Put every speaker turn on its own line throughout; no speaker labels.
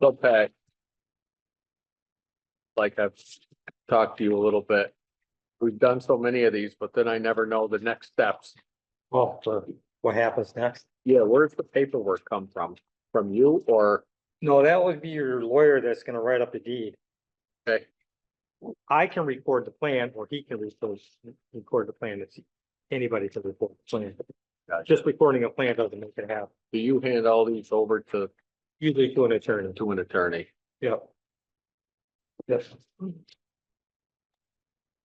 they'll pay. Like I've talked to you a little bit. We've done so many of these, but then I never know the next steps.
Well, so what happens next?
Yeah, where's the paperwork come from? From you or,
No, that would be your lawyer that's gonna write up the deed.
Okay.
I can record the plan or he can record, record the plan. It's anybody can record the plan.
Gotcha.
Just recording a plan doesn't make it happen.
do you hand all these over to,
Usually to an attorney.
to an attorney?
Yep. Yes.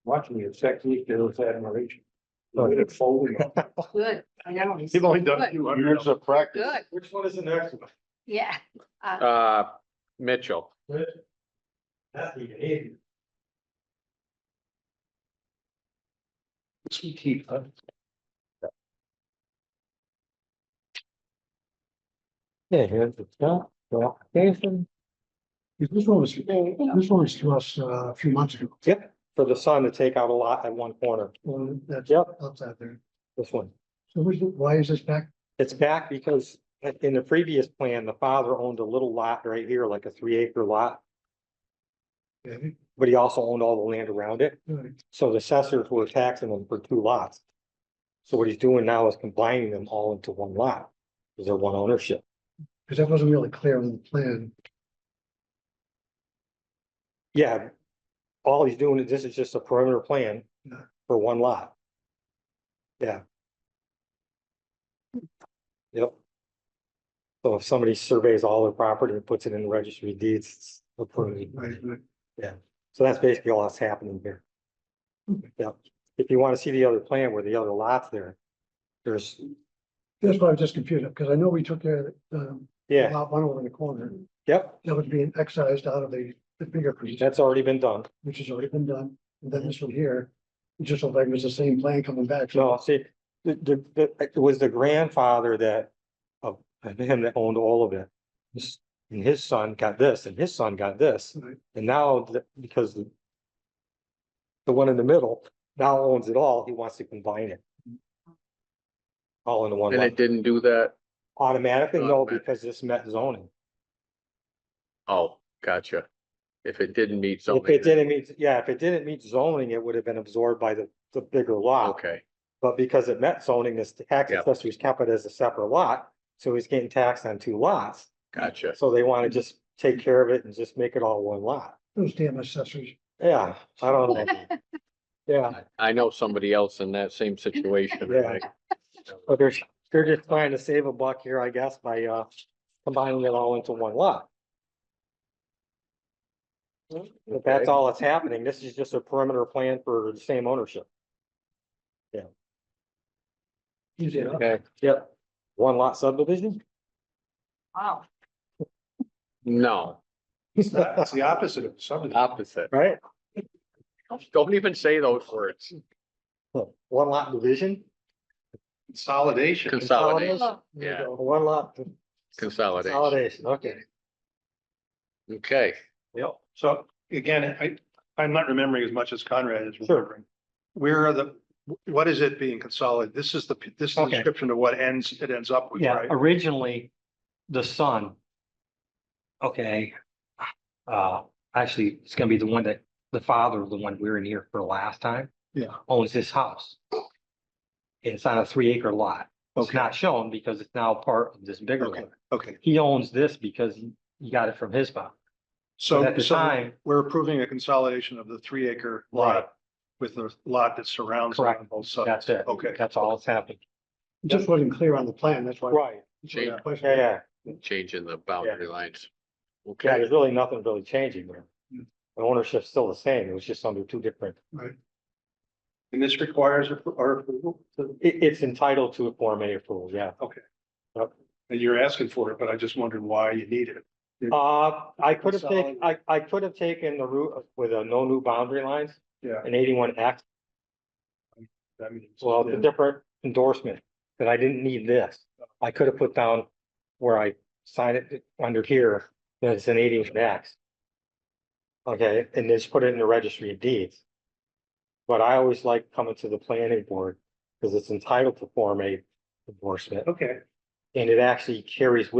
Watching you sex week, there was admiration.
Oh.
Look at it folding.
Good, I know.
You've only
done
two hundred. Years of practice.
Good,
Which one is the next one?
yeah. Uh,
Uh, Mitchell,
That's the behavior. Which we keep, huh?
Yeah, here's the stuff, the application.
Yeah, This one was, this one was to us uh, a few months ago.
Yep, for the son to take out a lot at one corner.
Well, that's
Yep.
outside there.
This one.
So who's the- why is this back?
It's back because in the previous plan, the father owned a little lot right here, like a three acre lot,
David?
but he also owned all the land around it.
All right.
So the assessors were taxing them for two lots. So what he's doing now is combining them all into one lot, because they're one ownership.
Because that wasn't really clear on the plan.
Yeah. All he's doing, is this is just a perimeter plan
Yeah.
for one lot. Yeah. Yep. So if somebody surveys all their property and puts it in the registry of deeds, it's a perimeter.
Right, right.
So that's basically all that's happening here.
Okay.
Yep. If you want to see the other plan where the other lots there, there's,
That's why I was just confused, because I know we took care of the
yeah,
lot one over in the corner.
yep,
That was being excised out of the, the fingerprint,
that's already been done.
which has already been done. And then this one here, it just looked like it was the same plan coming back.
No, see, the, the, the, it was the grandfather that, of, of him that owned all of it. This- And his son got this, and his son got this,
Right.
and now, the- because the. The one in the middle now owns it all, he wants to combine it. All into one
and
lot,
it didn't do that?
automatically, no,
Automatic.
because this met zoning.
Oh, gotcha. If it didn't meet
If
something.
it didn't meet, yeah, if it didn't meet zoning, it would have been absorbed by the, the bigger lot.
Okay,
But because it met zoning, this tax
Yeah.
assessor's kept it as a separate lot, so he's getting taxed on two lots.
gotcha.
So they wanna just take care of it and just make it all one lot.
Those damn assessors.
Yeah, I don't know. Yeah,
I- I know somebody else in that same situation.
Yeah.
right?
but they're, they're just trying to save a buck here, I guess, by, uh, combining it all into one lot. But that's
Okay.
all that's happening. This is just a perimeter plan for the same ownership.
Easy enough.
Okay,
Yep. One lot subdivision?
Wow,
no,
That's the opposite of something.
opposite.
Right?
Don't even say those words.
One lot division?
Consolidation.
Consolidation,
There you
Yeah.
go. One lot
consolidation.
consolidation, okay.
Okay,
Yep. So again, I, I'm not remembering as much as Conrad is
Sure.
remembering. Where are the, what is it being consolidated? This is the, this is the
Okay.
description of what ends, it ends up with,
Yeah,
right?
originally, the son. Okay. Uh, actually, it's gonna be the one that, the father, the one we were in here for last time.
Yeah.
Owns this house. It's on a three acre lot. It's
Okay.
not shown because it's now part of this bigger
Okay.
lot.
Okay,
He owns this because he he got it from his father. But
so,
At the
so
time,
we're approving a consolidation of the three acre
Right.
lot with the lot that surrounds it on both sides.
that's it.
Okay.
That's all that's happening.
It just wasn't clear on the plan, that's why.
Right.
change,
Yeah, yeah.
changing the boundary lines.
Yeah,
Okay,
there's really nothing really changing there.
Hmm.
The ownership's still the same. It was just under two different.
And this requires a- our approval, to-
It, it's entitled to a Form A approval, yeah.
and you're asking for it, but I just wondered why you need it.
Uh, I could have taken, I,
Consolidate.
I could have taken the route of- with a no new boundary lines
Yeah.
and eighty-one X,
I mean, it's-
well, it's a different endorsement, that I didn't need this. I could have put down where I signed it under here, that it's an eighty-one X. Okay, and just put it in the registry of deeds. But I always like coming to the planning board, because it's entitled to Form A endorsement,
Okay.
and it actually carries with